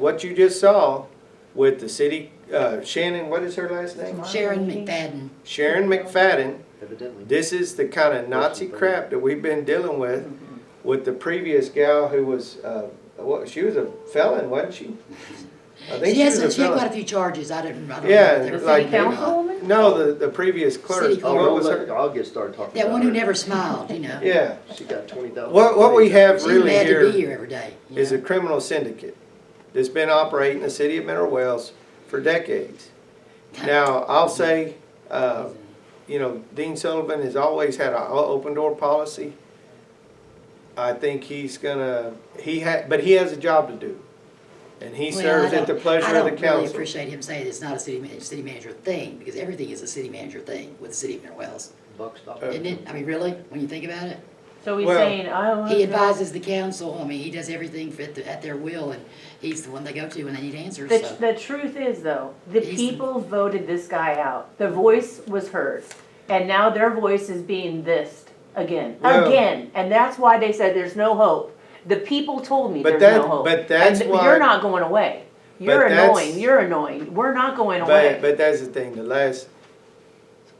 what you just saw with the city, uh, Shannon, what is her last name? Sharon McFadden. Sharon McFadden. Evidently. This is the kind of Nazi crap that we've been dealing with, with the previous gal who was, uh, what, she was a felon, wasn't she? I think She she was a has, she had quite a felon. few charges, I didn't, I don't know. Yeah, if they were The like- fake or not. councilwoman? No, the, the previous City clerk, clerk. Oh, what don't was let her? I'll get started talking. That about one who her. never smiled, you know. Yeah, She got twenty thousand. what, what we have She's really mad here to be here every day. you is know. a criminal syndicate that's been operating in the city of Mineral Wells for decades. Now, I'll say, uh, you know, Dean Sullivan has always had an open door policy. I think he's gonna, he had, but he has a job to do. And he Well, I serves at the don't- pleasure of the I don't really council. appreciate him saying it's not a city manager, city manager thing, because everything is a city manager thing with the city of Mineral Wells. Buck stopped. Uh, Isn't it? I mean, really, when you think about it? So he's Well- saying, I want. He advises the council, I mean, he does everything for- at, the- at their will, and he's the one they go to when they need answers, The, so. the truth is though, the He's- people voted this guy out. The voice was hers. And now their voice is being this again, Well- again. And that's why they said there's no hope. The people told me But there's that- no hope. but that's And why- You're not going away. You're But that's- annoying, you're annoying. We're not going But, away. but that's the thing, the last,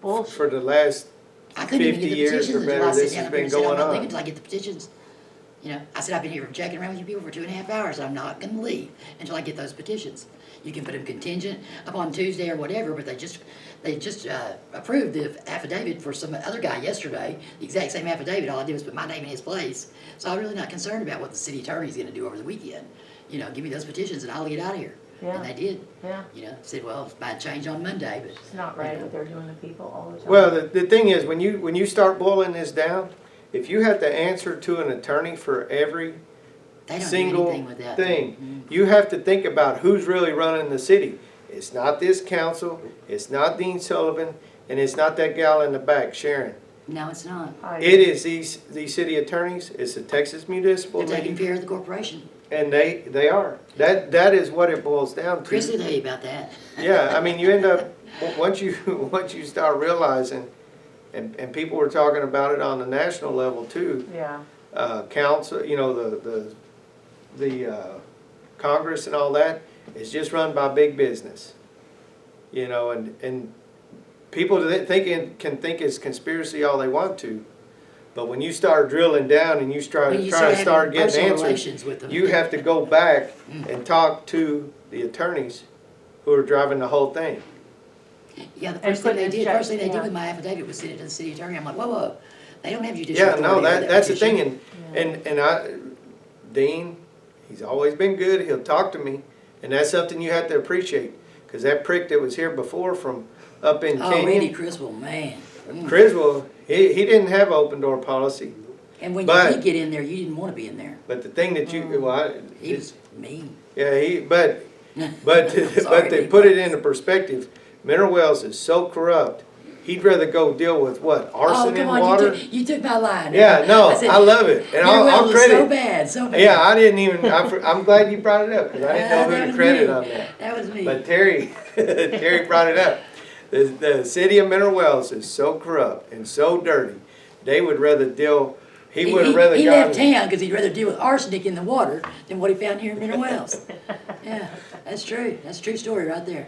Bullshit. for the last, I couldn't even 50 get the years petitions or until I better, sat this down has up here been and said, I'm going not on. leaving until I get the petitions. You know, I said, I've been here jacking around with you people for two and a half hours, I'm not gonna leave until I get those petitions. You can put them contingent upon Tuesday or whatever, but they just, they just, uh, approved the affidavit for some other guy yesterday, the exact same affidavit, all I did was put my name in his place. So I'm really not concerned about what the city attorney's gonna do over the weekend. You know, give me those petitions and I'll get out of here. Yeah. And they did, Yeah, you know, said, well, might change on Monday, but. it's not right what they're doing to people all the time. well, the, the thing is, when you, when you start boiling this down, if you have to answer to an attorney for every They don't do anything single with that. Mm-hmm. thing. You have to think about who's really running the city. It's not this council, it's not Dean Sullivan, and it's not that gal in the back, Sharon. No, it's not. I- It is these, these city attorneys, it's the Texas Municipal They're taking League, care of the corporation. and they, they are. That, that is what it boils down Chris will to. tell you about that. Yeah, I mean, you end up, o- once you, once you start realizing, and, and people were talking about it on the national level too, Yeah, uh, council, you know, the, the, the uh, Congress and all that is just run by big business. You know, and, and people that think, it- can think it's conspiracy all they want to, but when you start drilling down and you try, When you try uh, to having start getting personal answers, relations with them. you have to go back and talk to the attorneys who are driving the whole thing. Yeah, the first thing put they in did, check, first thing they did yeah. with my affidavit was send it to the city attorney. I'm like, whoa, whoa, they don't have judicial Yeah, authority. no, over that, that's the petition. thing, and, and, and I, Dean, he's always been good, he'll talk to me, and that's something you have to appreciate, cause that prick that was here before from up in Oh, Randy Canyon, Criswell, man. Mm. Criswell, he, he didn't have open door policy, And when you but- did get in there, you didn't want to be in there. but the thing that you, well, I- Mm. He was mean. yeah, he, but, but, Sorry, but to Dean. put it into perspective, Mineral Wells is so corrupt, he'd rather go deal with what, Oh, arson in come on, you water? took, you took my line. Yeah, no, said, I love it, and I'll, Your well I'll was so credit, bad, so bad. Yeah, I didn't even. I, for- I'm glad you brought it up because I didn't Uh, know that who to was credit me. on that. That was me. But Terry, Terry brought it up. The, the city of Mineral Wells is so corrupt and so dirty. They would rather deal. He would have rather He gotten. left town because he'd rather deal with arsenic in the water than what he found here in Mineral Wells. Yeah, that's true. That's a true story right there.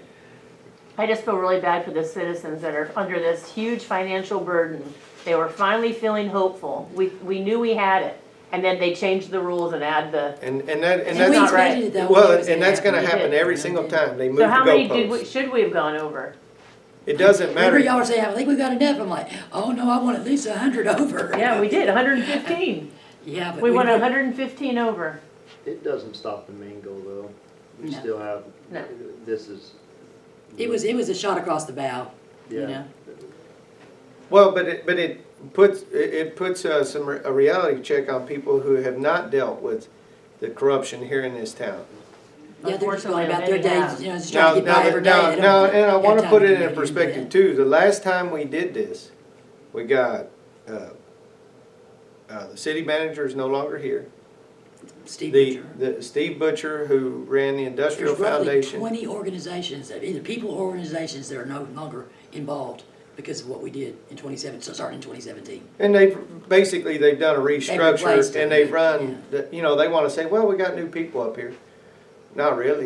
I just feel really bad for the citizens that are under this huge financial burden. They were finally feeling hopeful. We, we knew we had it. And then they changed the rules and add the, And and that and And we not that's right. expected it though. when it well, was and that's going to They happen did. every They single did. time they move so how many the did, we goalposts. should we have gone over? It doesn't Remember matter. y'all were saying, I think we got enough. I'm like, oh no, I want at least a hundred over. Yeah, we did, hundred and fifteen. Yeah, but. We went put- hundred and fifteen over. It doesn't stop the main goal though. We No. still have, No. this is. It was, it was a shot across the bow, you know? Well, but it, but it puts it, it puts uh, some re- a reality check on people who have not dealt with the corruption here in this town. Yeah, they're just Unfortunately, going about their they days, have. you know, just Now, trying to get now, by every day. now, They don't now, and I have want to time put it do in anything but perspective that. too. The last time we did this, we got, uh, uh, the city manager is no longer here. Steve The, Butcher. the Steve Butcher, who ran the Industrial There's roughly Foundation. twenty organizations, that either people or organizations that are no longer involved because of what we did in twenty seven, so starting in twenty seventeen. And they've, basically, they've done a replaced restructure them, and they've yeah. run, the- you know, they want to say, well, we got new people up here. Not really.